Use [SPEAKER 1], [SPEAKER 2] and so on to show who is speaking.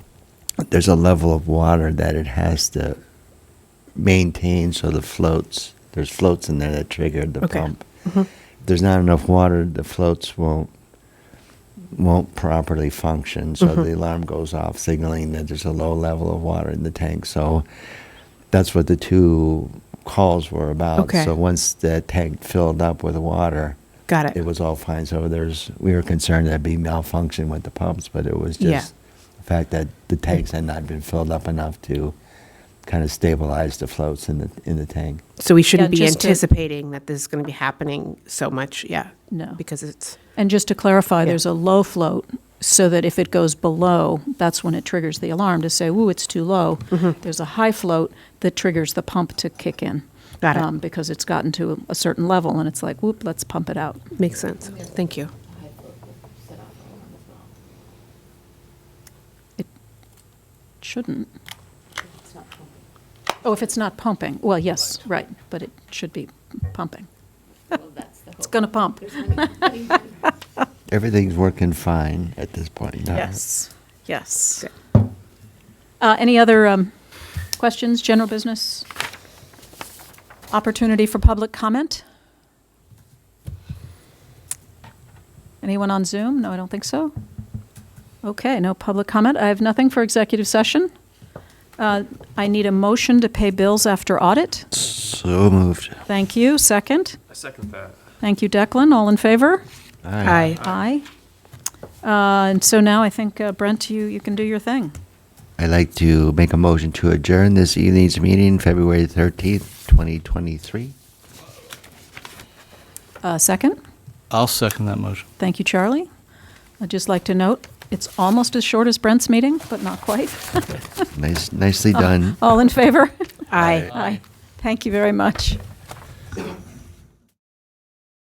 [SPEAKER 1] there's a level of water that it has to maintain so the floats there's floats in there that trigger the
[SPEAKER 2] Okay. Mm-hmm.
[SPEAKER 1] pump. If there's not enough water, the floats won't won't properly function, so
[SPEAKER 2] Mm-hmm.
[SPEAKER 1] the alarm goes off, signaling that there's a low level of water in the tank. So that's what the two calls were about.
[SPEAKER 2] Okay.
[SPEAKER 1] So once the tank filled up with water,
[SPEAKER 2] Got it.
[SPEAKER 1] it was all fine. So there's we were concerned that'd be malfunction with the pumps, but it was just
[SPEAKER 2] Yeah.
[SPEAKER 1] the fact that the tanks had not been filled up enough to kind of stabilize the floats in the in the tank.
[SPEAKER 2] so we shouldn't be
[SPEAKER 3] Yeah, just to-
[SPEAKER 2] anticipating that this is going to be happening so much. Yeah.
[SPEAKER 3] No.
[SPEAKER 2] Because it's
[SPEAKER 3] And just to clarify,
[SPEAKER 2] Yeah.
[SPEAKER 3] there's a low float so that if it goes below, that's when it triggers the alarm to say, ooh, it's too low.
[SPEAKER 2] Mm-hmm.
[SPEAKER 3] There's a high float that triggers the pump to kick in. um,
[SPEAKER 2] Got it.
[SPEAKER 3] because it's gotten to a certain level and it's like, whoop, let's pump it out.
[SPEAKER 2] makes sense. Thank you.
[SPEAKER 3] Shouldn't. Oh, if it's not pumping. Well, yes, right, but it should be pumping. It's going to pump.
[SPEAKER 1] Everything's working fine at this point. No,
[SPEAKER 3] Yes, yes. Uh, Any other um, questions, general business? Opportunity for public comment? Anyone on Zoom? No, I don't think so. Okay, no public comment. I have nothing for executive session. Uh, I need a motion to pay bills after audit.
[SPEAKER 1] So moved.
[SPEAKER 3] Thank you. Second.
[SPEAKER 4] I second that.
[SPEAKER 3] Thank you, Declan. All in favor?
[SPEAKER 2] Hi.
[SPEAKER 3] Aye. Uh, And so now I think, uh, Brent, you, you can do your thing.
[SPEAKER 1] I'd like to make a motion to adjourn this evening's meeting, February 13th, 2023.
[SPEAKER 3] Uh, Second?
[SPEAKER 5] I'll second that motion.
[SPEAKER 3] Thank you, Charlie. I'd just like to note, it's almost as short as Brent's meeting, but not quite.
[SPEAKER 2] Oh.
[SPEAKER 1] Nice, nicely done.
[SPEAKER 3] All in favor?
[SPEAKER 2] Aye.
[SPEAKER 3] Aye. Thank you very much.